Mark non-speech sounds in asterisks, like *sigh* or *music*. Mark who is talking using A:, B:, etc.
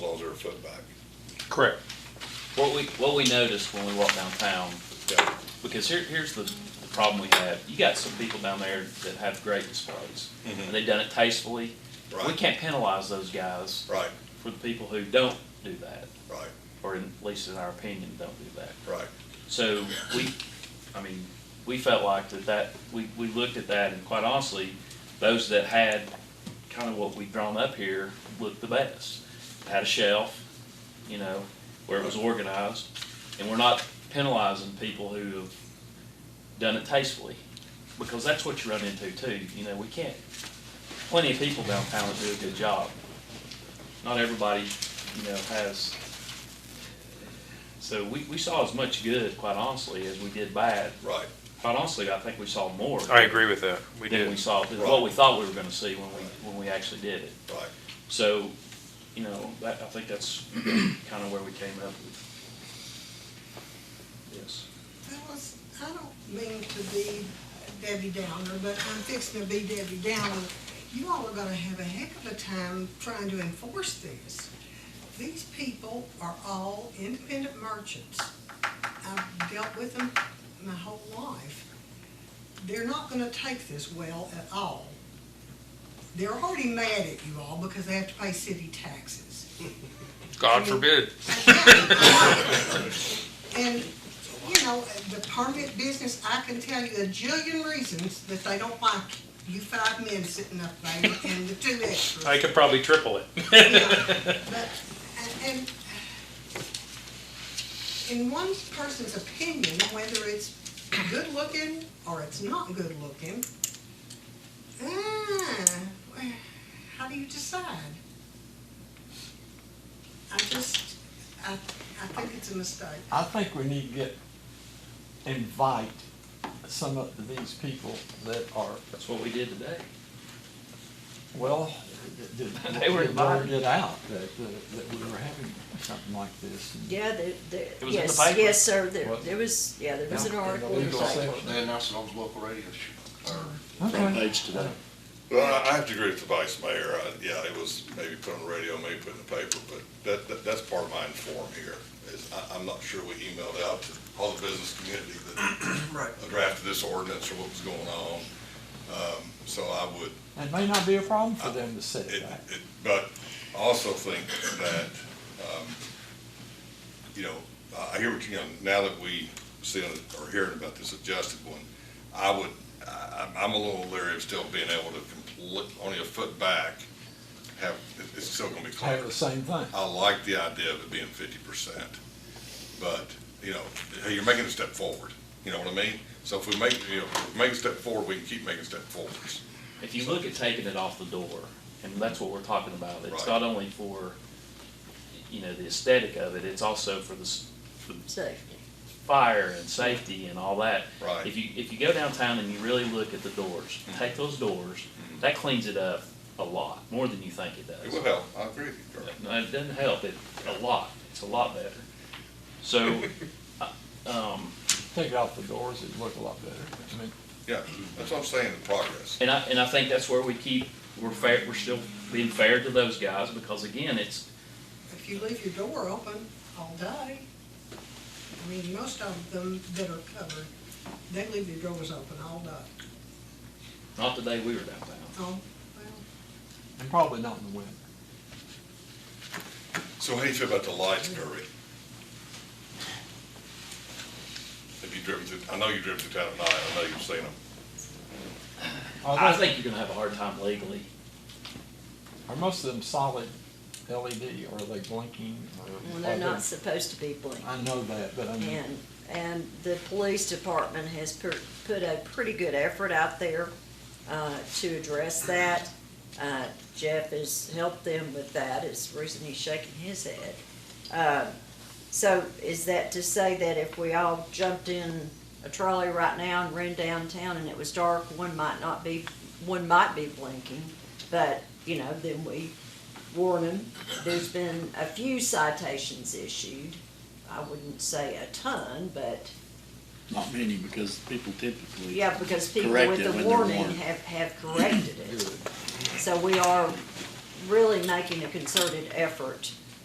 A: foot back.
B: Correct.
C: What we, what we noticed when we walked downtown,
A: Yeah.
C: because here, here's the, the problem we have. You got some people down there that have great displays, and they've done it tastefully. We
A: Right.
C: can't penalize those guys
A: Right,
C: for the people who don't do that,
A: right,
C: or in- at least in our opinion, don't do that.
A: right.
C: So we, I mean, we felt like that that, we, we looked at that and quite honestly, those that had kind of what we've drawn up here looked the best. Had a shelf, you know, where it was organized. And we're not penalizing people who have done it tastefully, because that's what you run into too. You know, we can't, plenty of people downtown that do a good job. Not everybody, you know, has so we, we saw as much good, quite honestly, as we did bad.
A: Right,
C: Quite honestly, I think we saw more
B: I agree with that. We
C: than we
B: did.
C: saw, than what we thought we were gonna see when we, when we actually did it.
A: right.
C: So, you know, that, I think that's *clears throat* kinda where we came up with. Yes.
D: Alice, I don't mean to be Debbie Downer, but I'm fixing to be Debbie Downer. You all are gonna have a heck of a time trying to enforce this. These people are all independent merchants. I've dealt with them my whole life. They're not gonna take this well at all. They're already mad at you all because they have to pay city taxes.
B: God forbid.
D: And, you know, the permit business, I can tell you a jillion reasons that they don't like you five men sitting up there and the two extras.
B: I could probably triple it.
D: Yeah, But, and, and in one person's opinion, whether it's good looking or it's not good looking, ah, well, how do you decide? I just, I, I think it's a mistake.
E: I think we need to get, invite some of these people that are,
C: That's what we did today.
E: well, that-
C: *laughs*
E: that-
C: They were
E: that word
C: invited.
E: it out, that, that that we were having something like this. and-
F: Yeah, there, there,
C: It was in the
F: yes,
C: paper.
F: yes, sir, there,
E: What?
F: there was, yeah, there was an
E: Yeah, in the
F: article.
E: legal section.
G: They announced it on the local radio show, or
E: Okay.
G: front page today.
A: Well, I- I have to agree with the vice mayor. I- Yeah, it was maybe put on the radio, maybe put in the paper, but that, that, that's part of my inform here. Is I, I'm not sure we emailed out to all the business community that drafted this ordinance or what was going on. Um, So I would,
E: It may not be a problem for them to set
A: It,
E: it back.
A: it, but I also think that, um, you know, I I hear what you, you know, now that we see, or hearing about this adjusted one, I would, I, I'm- I'm a little leery of still being able to complete, only a foot back, have, it- it's still gonna be
E: Have
A: clear.
E: the same thing.
A: I like the idea of it being fifty percent, but, you know, hey, you're making a step forward, you know what I mean? So if we make, you know, if we make a step forward, we can keep making step forwards.
C: If you look at taking it off the door, and that's what we're talking about, it's
A: Right.
C: not only for, you know, the aesthetic of it, it's also for the, s- for the
F: So,
C: fire and safety and all that.
A: Right.
C: If you, if you go downtown and you really look at the doors, take those doors, that cleans it up a lot, more than you think Mm-hmm. it
A: It will
C: does.
A: help, I agree with you, Charlie.
C: No, it doesn't help, it, a lot, it's a lot better. So, uh, um,
E: Take it off the doors, it'd look a lot better. I mean,
A: Yeah, that's what I'm saying, the progress.
C: and I, and I think that's where we keep, we're fair, we're still being fair to those guys, because again, it's,
D: if you leave your door open all day, I mean, most of them that are covered, they leave their doors open all day.
C: not the day we were downtown.
D: Oh,
E: and probably not in the winter.
A: So how do you feel about the lights, Kirby? Have you driven through, I know you've driven through town at night, I know you've seen them.
E: Are
C: I
E: they-
C: think you're gonna have a hard time legally.
E: Are most of them solid LED, or are they blinking, or?
F: Well,
E: are
F: they're
E: they-
F: not supposed to be blinking.
E: I know that, but I mean,
F: And, and the police department has per- put a pretty good effort out there uh, to address that. Uh, Jeff has helped them with that, is the reason he's shaking his head. Uh, So is that to say that if we all jumped in a trolley right now and ran downtown and it was dark, one might not be, one might be blinking, but, you know, then we warn them. There's been a few citations issued. I wouldn't say a ton, but,
H: Not many, because people typically.
F: yeah, because people
H: Correct
F: with
H: it
F: the
H: when they're
F: warning
H: warned.
F: have, have corrected it. So we are really making a concerted effort